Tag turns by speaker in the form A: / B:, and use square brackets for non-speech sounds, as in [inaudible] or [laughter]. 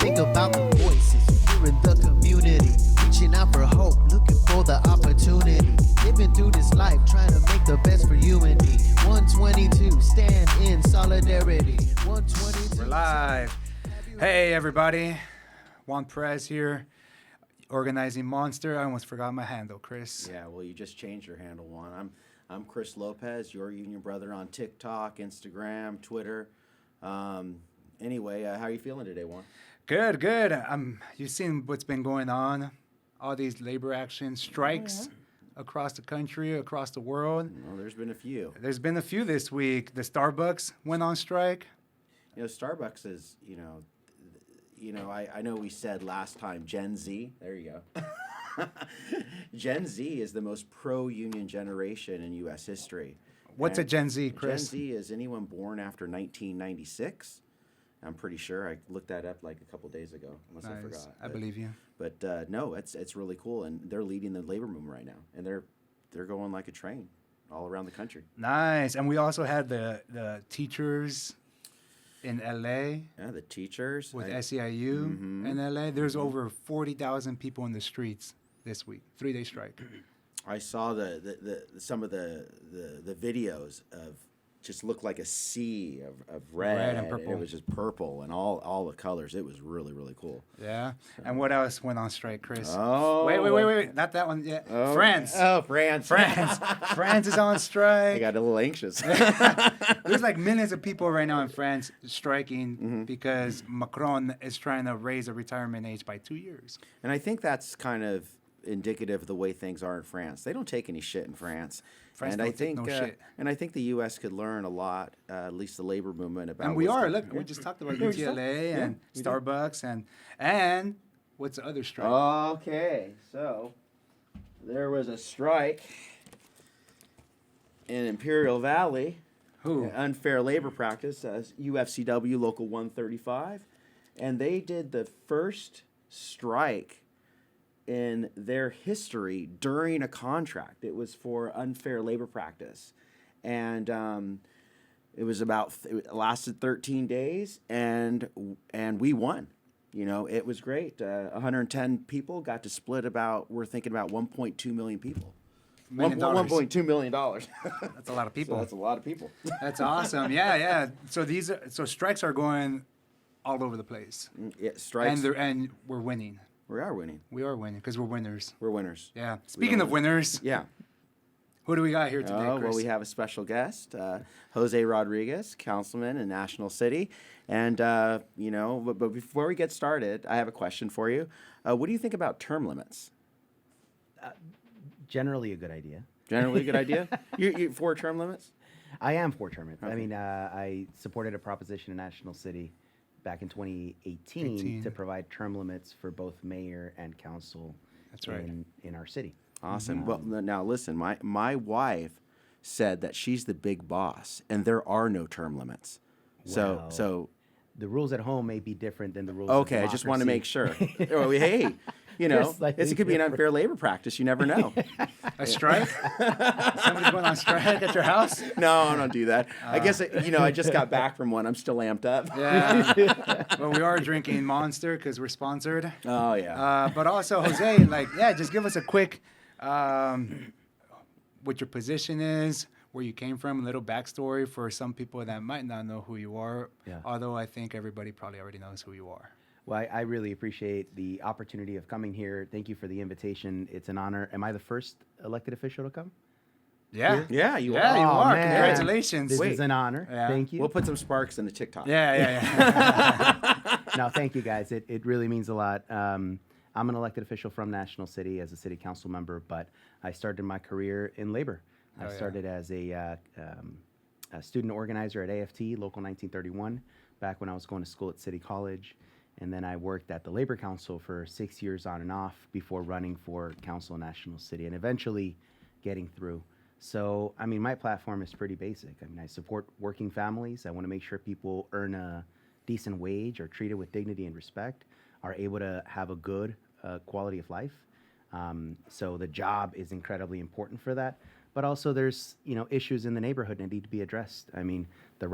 A: Think about the voices here in the community, reaching out for hope, looking for the opportunity. Living through this life, trying to make the best for you and me. 122, stand in solidarity. 122.
B: We're live. Hey, everybody. Juan Perez here, organizing Monster. I almost forgot my handle, Chris.
C: Yeah, well, you just changed your handle one. I'm I'm Chris Lopez, your union brother on TikTok, Instagram, Twitter. Um, anyway, uh, how are you feeling today, Juan?
B: Good, good. Um, you've seen what's been going on, all these labor action strikes
C: Mm-hmm.
B: across the country, across the world.
C: Well, there's been a few.
B: There's been a few this week. The Starbucks went on strike.
C: You know, Starbucks is, you know, th- you know, I, I know we said last time Gen Z. There you go. [laughs] Gen Z is the most pro-union generation in U.S. history.
B: What's a
C: And
B: Gen Z, Chris?
C: Gen Z is anyone born after 1996. I'm pretty sure I looked that up like a couple days ago, unless I
B: Nice.
C: forgot.
B: I
C: but-
B: believe you.
C: But uh, no, it's it's really cool, and they're leading the labor movement right now, and they're they're going like a train all around the country.
B: Nice. And we also had the, the teachers in LA
C: Yeah, the teachers.
B: with
C: I-
B: SEIU
C: Mm-hmm.
B: in LA. There's over 40,000 people in the streets this week, three day
C: [clears throat]
B: strike.
C: I saw the, the, the some of the, the the videos of just looked like a sea of, of red,
B: Red and
C: It
B: purple.
C: was just purple and all all the colors. It was really really cool.
B: Yeah. And what else went on strike, Chris?
C: Oh,
B: Wait, wait, wait, wait, wait. Not that one yet.
C: Oh. [laughs]
B: France.
C: Oh, France,
B: France.
C: [laughs]
B: France is on
C: I
B: strike.
C: got a
B: [laughs]
C: little anxious.
B: There's like millions of people right now in France striking
C: Mm-hmm.
B: because Macron is trying to raise the retirement age by two years.
C: And I think that's kind of indicative of the way things are in France. They don't take any shit in France.
B: France
C: and I
B: don't take
C: think
B: no
C: uh,
B: shit.
C: and I think the US could learn a lot, uh, at least the labor movement about
B: And we
C: what's
B: are.
C: going-
B: Look, we just
C: [laughs]
B: talked about
C: Yeah, we just
B: UTLA
C: talked- yeah,
B: and
C: we did. Oh.
B: Starbucks and and what's the other strike?
C: Okay, so there was a strike in Imperial Valley,
B: Who?
C: an unfair labor practice, uh, UFCW Local 135, and they did the first strike in their history during a contract. It was for unfair labor practice, and um, it was about it lasted 13 days, and and we won. You know, it was great. Uh, 110 people got to split about. We're thinking about 1.2 million people.
B: Million
C: One-
B: dollars.
C: 1.2 million dollars. [laughs]
B: That's a lot of people.
C: So that's a lot of people.
B: That's awesome. Yeah, yeah. So these are, so strikes are going all over the place,
C: yeah, strikes.
B: and they're and we're winning.
C: we are winning.
B: We are winning because we're winners.
C: We're winners.
B: Yeah. Speaking of
C: win.
B: winners,
C: Yeah.
B: who do we got here today,
C: Oh,
B: Chris?
C: well, we have a special guest, uh, Jose Rodriguez, councilman in National City. And, uh, you know, but, but before we get started, I have a question for you. Uh, what do you think about term limits?
D: generally a good idea.
C: Generally a
B: [laughs]
C: good idea? You, you for term limits?
D: I am for term limits. I
C: Okay.
D: mean, uh, I supported a proposition in National City back in 2018
B: 18.
D: to provide term limits for both mayor and council
B: That's right.
D: in, in our city.
C: Awesome. Well, n- now listen, my, my wife said that she's the big boss and there are no term limits. So,
D: Wow.
C: so
D: The rules at home may be different than the rules.
C: Okay, I just want to make sure. [laughs] Well,
B: [laughs]
C: we- hey, you know,
D: Just like
C: it's, it could be an unfair labor practice. You never
B: [laughs]
C: know.
B: a
C: [laughs]
B: strike? Somebody's going on strike at your house?
C: no, I don't do that. I guess it, you know, I just got back from one. I'm still amped up.
B: Uh. [laughs] Yeah. well, we are drinking Monster because we're sponsored.
C: Oh yeah.
B: Uh, but also, Jose, like, yeah, just give us a quick, um, what your position is, where you came from, a little backstory for some people that might not know who you are.
D: Yeah.
B: Although I think everybody probably already knows who you are.
D: Well, I, I really appreciate the opportunity of coming here. Thank you for the invitation. It's an honor. Am I the first elected official to come?
B: Yeah.
C: yeah, you
B: Yeah, you
C: are.
D: Aw,
B: are.
D: Oh, man.
B: Congratulations.
D: This
B: Wait.
D: is an honor.
B: Yeah.
D: Thank you.
C: We'll put some sparks in the TikTok. [laughs]
B: Yeah, [laughs] yeah,
D: [laughs] no, thank you guys. It, it really means a lot. Um, I'm an elected official from National City as a city council member, but I started my career in labor. I
B: Oh, yeah.
D: started as a, uh, um, a student organizer at AFT, Local 1931, back when I was going to school at City College. And then I worked at the Labor Council for six years on and off before running for Council in National City and eventually getting through. So, I mean, my platform is pretty basic. I mean, I support working families. I want to make sure people earn a decent wage, are treated with dignity and respect, are able to have a good uh, quality of life. Um, so the job is incredibly important for that. But also, there's you know issues in the neighborhood that need to be addressed. I mean, the